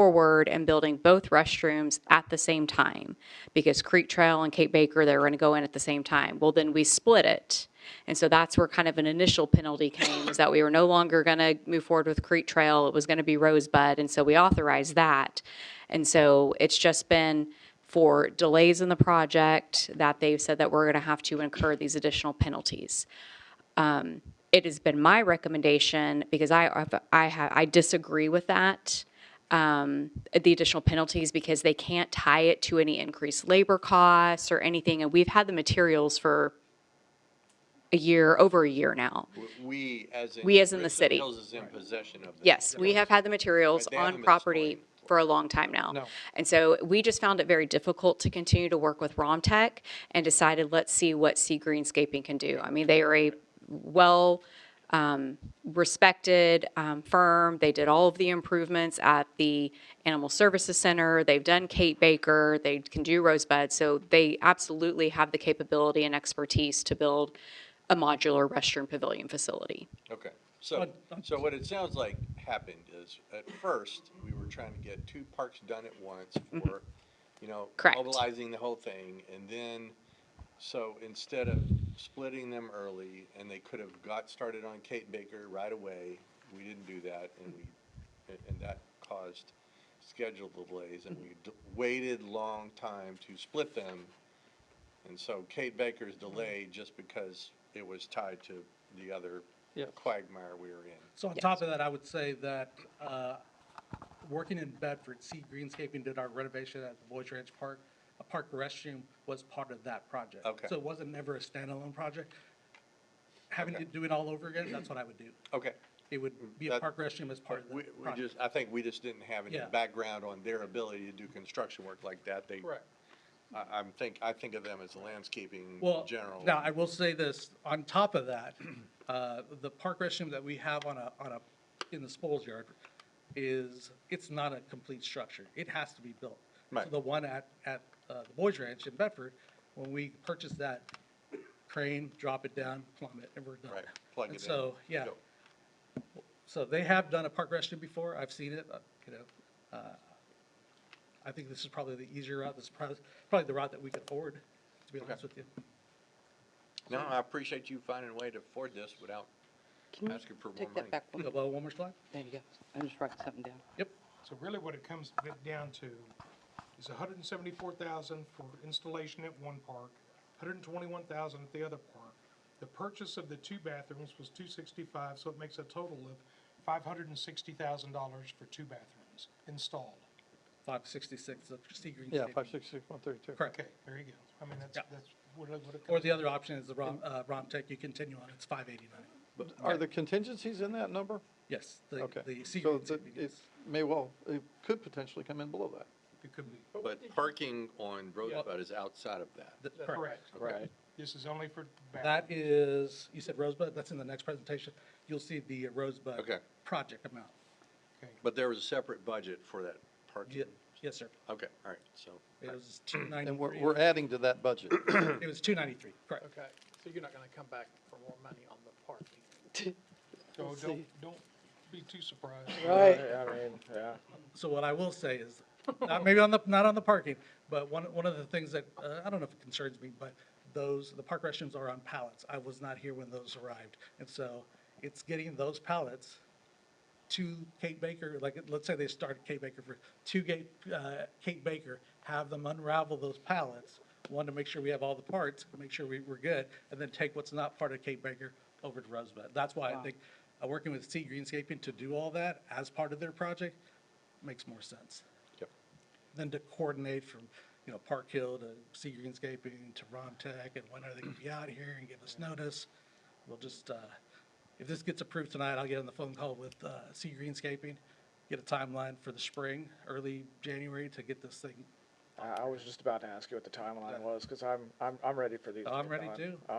forward and building both restrooms at the same time. Because Creek Trail and Cape Baker, they were going to go in at the same time. Well, then we split it. And so that's where kind of an initial penalty came, is that we were no longer going to move forward with Creek Trail. It was going to be Rosebud, and so we authorized that. And so it's just been for delays in the project that they've said that we're going to have to incur these additional penalties Um, it has been my recommendation, because I, I, ha- I disagree with that, um, the additional penalties, because they can't tie it to any increased labor costs or anything, and we've had the materials for a year, over a year now. We, as in. We as in the Crystal city. Hills is in possession of. the- Yes, we have had the materials But they haven't on been property storing them. for a long time now. No. And so we just found it very difficult to continue to work with Romtech and decided, let's see what Sea Greenscaping can do. I mean, they are a well, um, respected, um, firm. They did all of the improvements at the Animal Services Center. They've done Kate Baker. They can do Rosebud. So they absolutely have the capability and expertise to build a modular restroom pavilion facility. Okay, so, so what it sounds like happened is, at first, we were trying to get two parks done at once for, you know, Mm-hmm. Correct. mobilizing the whole thing, and then, so instead of splitting them early, and they could have got started on Kate Baker right away, we didn't do that, and we, and- and that caused schedule delays, and we d- waited long time to split them. And so Kate Baker's delayed just because it was tied to the other Yeah. quagmire we were in. So on top of that, I would say that, uh, working in Bedford, Sea Greenscaping did our renovation at the Boys Ranch Park. A park restroom was part of that project. Okay. So it wasn't never a standalone project. Having to Okay. do it all over again, that's what I would do. Okay. It would be a That- park restroom as part of We, the we project. just, I think we just didn't have any Yeah. background on their ability to do construction work like that. They. I, I'm think, I think of them as landscaping Well, general. now, I will say this, on top of that, uh, the park restroom that we have on a, on a, in the Spoils Yard is, it's not a complete structure. It has to be built. So Right. The one at, at uh, the Boys Ranch in Bedford, when we purchased that, crane, drop it down, plumb it, and we're done. Right, plug And it in. So, yeah. Go. So they have done a park restroom before, I've seen it, uh, you know. uh, I think this is probably the easier route, this is probably, probably the route that we could afford, to be honest with you. No, I appreciate you finding a way to afford this without Can you asking for more Take money. that back. one. Go below one more slide? There you go. I'm just writing something down. Yep. So really what it comes bit down to is hundred and seventy-four thousand for installation at one park, hundred and twenty-one thousand at the other park. The purchase of the two bathrooms was two sixty-five, so it makes a total of five hundred and sixty thousand dollars for two bathrooms installed. Five sixty-six, the Sea Green Yeah, State. five six six one thirty two. Correct. Okay, there you go. I mean, that's, Yeah. that's what it, what it Or comes. the other option is the ROM, uh, ROMTech, you continue on, it's five eighty-nine. Are there contingencies in that number? Yes, the, Okay. the Sea So Green that State. it may well, it could potentially come in below that. It could be. But parking on Rosebud is outside of that. Correct. Correct. This is only for That bathrooms. is, you said Rosebud, that's in the next presentation. You'll see the Rosebud. Okay. Project amount. Okay. But there was a separate budget for that parking. Ye- Yes, sir. Okay, all right, so. It was two And we're, ninety-three. we're adding to that budget. It was two ninety-three, correct. Okay, so you're not gonna come back for more money on the parking? So don't, don't be too surprised. Right. So what I will say is, not maybe on the, not on the parking, but one, one of the things that, uh, I don't know if it concerns me, but those, the park restrooms are on pallets. I was not here when those arrived. And so it's getting those pallets to Kate Baker, like, let's say they start at Kate Baker for, to Kate, uh, Kate Baker, have them unravel those pallets, one, to make sure we have all the parts, make sure we, we're good, and then take what's not part of Kate Baker over to Rosebud. That's why I think, uh, working with Sea Greenscaping to do all that as part of their project makes more sense Yep. than to coordinate from, you know, Park Hill to Sea Greenscaping to Romtech, and when are they gonna be out here and give us notice? We'll just, uh, if this gets approved tonight, I'll get on the phone call with, uh, Sea Greenscaping, get a timeline for the spring, early January to get this thing. I, I was just about to ask you what the timeline was, because I'm, I'm, I'm ready for these. to I'm get ready done. too. Uh,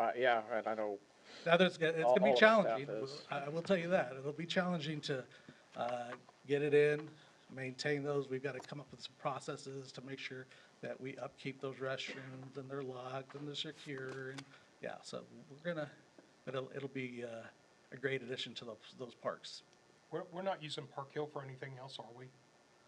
uh, yeah, and I know, Now, there's, it's All- gonna be all of our staff challenging, is. I, I will tell you that, it'll be challenging to, uh, get it in, maintain those, we've gotta come up with some processes to make sure that we upkeep those restrooms, and they're locked, and they're secure, and, yeah, so we're gonna, it'll, it'll be, uh, a great addition to those, those parks. We're, we're not using Park Hill for anything else, are we?